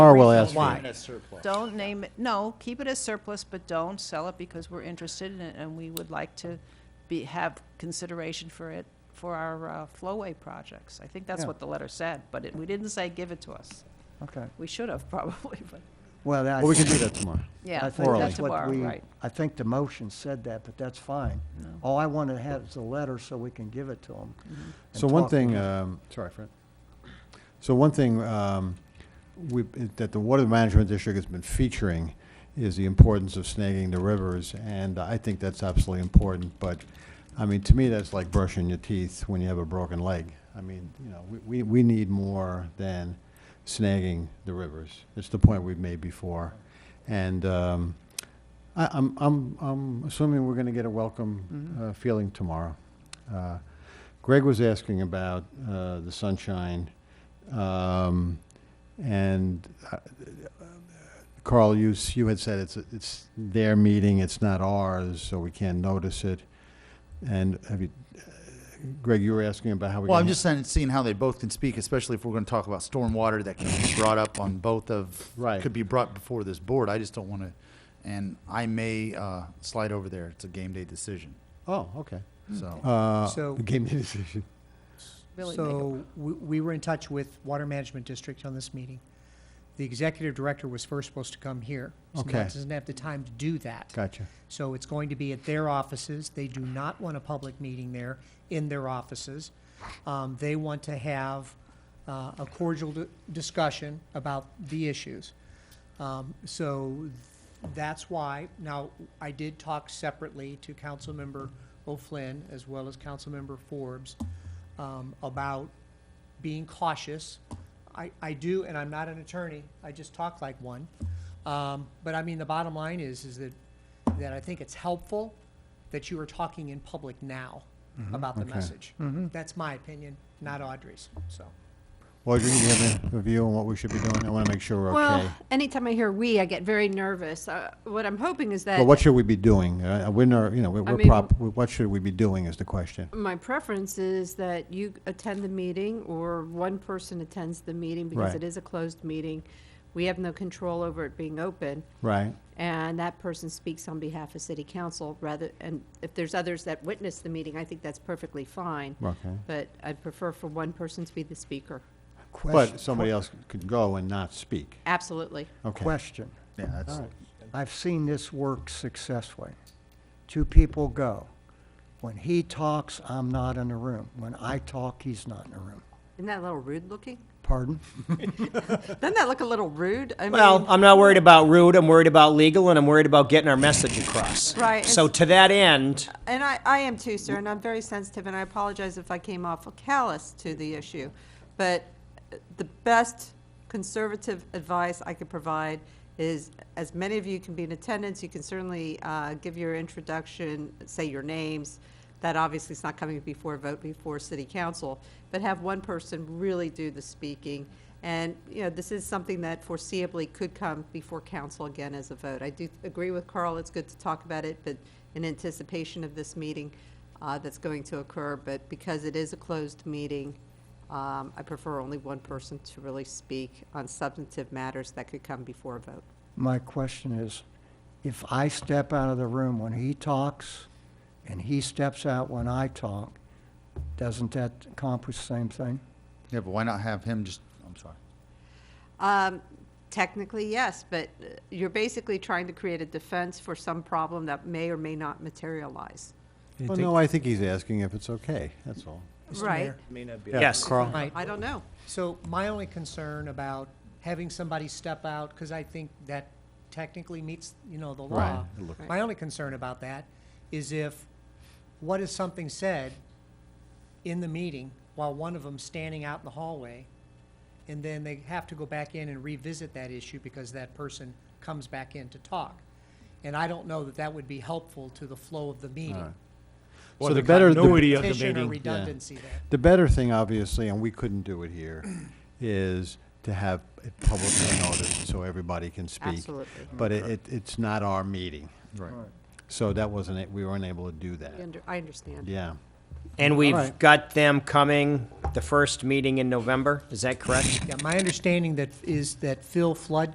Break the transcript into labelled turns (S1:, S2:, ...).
S1: Tomorrow Oh, we'll
S2: reason
S1: ask for it.
S2: why. Don't name it, no, keep it as surplus, but don't sell it because we're interested in it and we would like to be, have consideration for it for our uh, flowway projects. I think that's
S1: Yeah.
S2: what the letter said, but it- we didn't say give it to us.
S3: Okay,
S2: We should have probably, but,
S3: well, I.
S1: Well, we can do that tomorrow.
S2: yeah,
S3: I think
S1: Orally.
S2: that's
S3: that's what
S2: tomorrow,
S3: we-
S2: right.
S3: I think the motion said that, but that's fine. All I want to have is a letter so we can give it to them.
S2: Mm-hmm.
S1: So one thing, um, sorry, Fred. So one thing, um, we, that the Water Management District has been featuring is the importance of snagging the rivers, and I think that's absolutely important, but, I mean, to me, that's like brushing your teeth when you have a broken leg. I mean, you know, we, we, we need more than snagging the rivers. It's the point we've made before. And, um, I, I'm, I'm, I'm assuming we're gonna get a welcome,
S4: Mm-hmm.
S1: uh, feeling tomorrow. Uh, Greg was asking about uh, the sunshine, um, and uh, Carl, you, s- you had said it's, it's their meeting, it's not ours, so we can't notice it. And have you, uh, Greg, you were asking about how we.
S4: Well, I'm
S1: can-
S4: just saying, seeing how they both can speak, especially if we're going to talk about stormwater that can be brought up on both of,
S1: Right.
S4: could be brought before this board. I just don't want to, and I may uh, slide over there. It's a game day decision,
S1: Oh, okay.
S4: so.
S1: Uh,
S5: So-
S1: the game day decision.
S2: Really make it-
S5: So we, we were in touch with Water Management District on this meeting. The executive director was first supposed to come here. so
S1: Okay.
S5: Doesn't have the time to do that.
S1: Gotcha.
S5: So it's going to be at their offices. They do not want a public meeting there, in their offices. Um, they want to have, uh, a cordial di- discussion about the issues. Um, so that's why, now, I did talk separately to Councilmember O'Flynn as well as Councilmember Forbes, um, about being cautious. I, I do, and I'm not an attorney, I just talk like one. Um, but I mean, the bottom line is, is that, that I think it's helpful that you are talking in public now about the
S1: Okay.
S5: message. That's my opinion, not Audrey's, so.
S1: Audrey, do you have a- a view on what we should be doing? I want to make sure we're okay.
S6: Well, anytime I hear "we," I get very nervous. Uh, what I'm hoping is that
S1: But what should we be doing? Uh, We're not, you know, we're-
S6: I
S1: we're
S6: mean-
S1: prop, what should we be doing is the question.
S6: my preference is that you attend the meeting, or one person attends the meeting because
S1: Right.
S6: it is a closed meeting. We have no control over it being open,
S1: Right,
S6: and that person speaks on behalf of City Council rather. And if there's others that witness the meeting, I think that's perfectly fine.
S1: okay.
S6: But I'd prefer for one person to be the speaker.
S1: But somebody else could go and not speak.
S6: Absolutely.
S1: Okay.
S3: Question.
S4: Yeah, that's,
S3: I've seen this work successfully. Two people go. When he talks, I'm not in the room. When I talk, he's not in the room.
S6: Isn't that a little rude looking?
S3: Pardon?
S6: Doesn't that look a little rude? I
S7: Well,
S6: mean,
S7: I'm not worried about rude. I'm worried about legal, and I'm worried about getting our message across.
S6: Right,
S7: So
S6: it's-
S7: to that end,
S6: And I, I am too, sir, and I'm very sensitive, and I apologize if I came off callous to the issue. But uh, the best conservative advice I could provide is, as many of you can be in attendance, you can certainly uh, give your introduction, say your names. That obviously is not coming before a vote before city council, but have one person really do the speaking. And, you know, this is something that foreseeably could come before council again as a vote. I do agree with Carl, it's good to talk about it, but in anticipation of this meeting uh, that's going to occur, but because it is a closed meeting, um, I prefer only one person to really speak on substantive matters that could come before a vote.
S3: My question is, if I step out of the room when he talks, and he steps out when I talk, doesn't that accomplish the same thing?
S4: yeah, but why not have him just, I'm sorry.
S6: Um, Technically, yes, but uh, you're basically trying to create a defense for some problem that may or may not materialize.
S1: Well, no, I think he's asking if it's okay, that's all.
S5: Mr.
S6: Right?
S5: Mayor,
S1: Yeah,
S7: Yes.
S1: Carl?
S5: Right.
S6: I don't know.
S5: So my only concern about having somebody step out, because I think that technically meets, you know, the law.
S1: Right, it looked-
S5: My only concern about that is if, what is something said in the meeting while one of them's standing out in the hallway, and then they have to go back in and revisit that issue because that person comes back in to talk. And I don't know that that would be helpful to the flow of the meeting.
S1: Alright. So the better, the,
S8: continuity of the
S5: Petition or
S8: meeting.
S5: redundancy there.
S1: the better thing, obviously, and we couldn't do it here, is to have it publicly noticed so everybody can speak.
S6: Absolutely.
S1: But it, it- it's not our meeting,
S4: Right.
S1: so that wasn't it, we weren't able to do
S6: I
S1: that.
S6: under- I understand.
S1: Yeah.
S7: And we've
S3: right.
S7: got them coming the first meeting in November, is that correct?
S5: Yeah, my understanding that, is that Phil Flood